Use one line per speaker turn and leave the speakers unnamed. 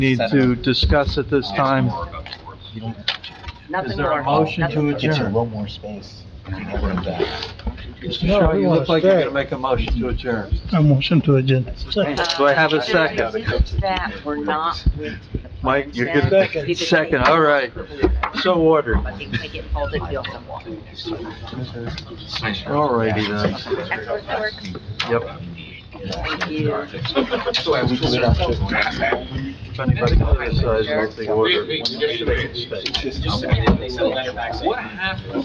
need to discuss at this time.
Nothing
Is there a
more.
motion
Nothing-
to
Gives you a
adjourn?
little more space, if you know what I'm saying.
Mr.
No,
Shaw,
we
you
wanna
look like you're
stay.
gonna make a motion to adjourn.
A motion to adjourn.
Do I have a
Uh,
second?
it's That we're not with the
Mike, you're
plan.
gonna,
Either they-
second, all right. So ordered.
I think they get called at the other one.
All righty then.
Excellent work.
Yep.
Thank you.
So we do it after.
If anybody criticizes the order, they can stay.
What happened?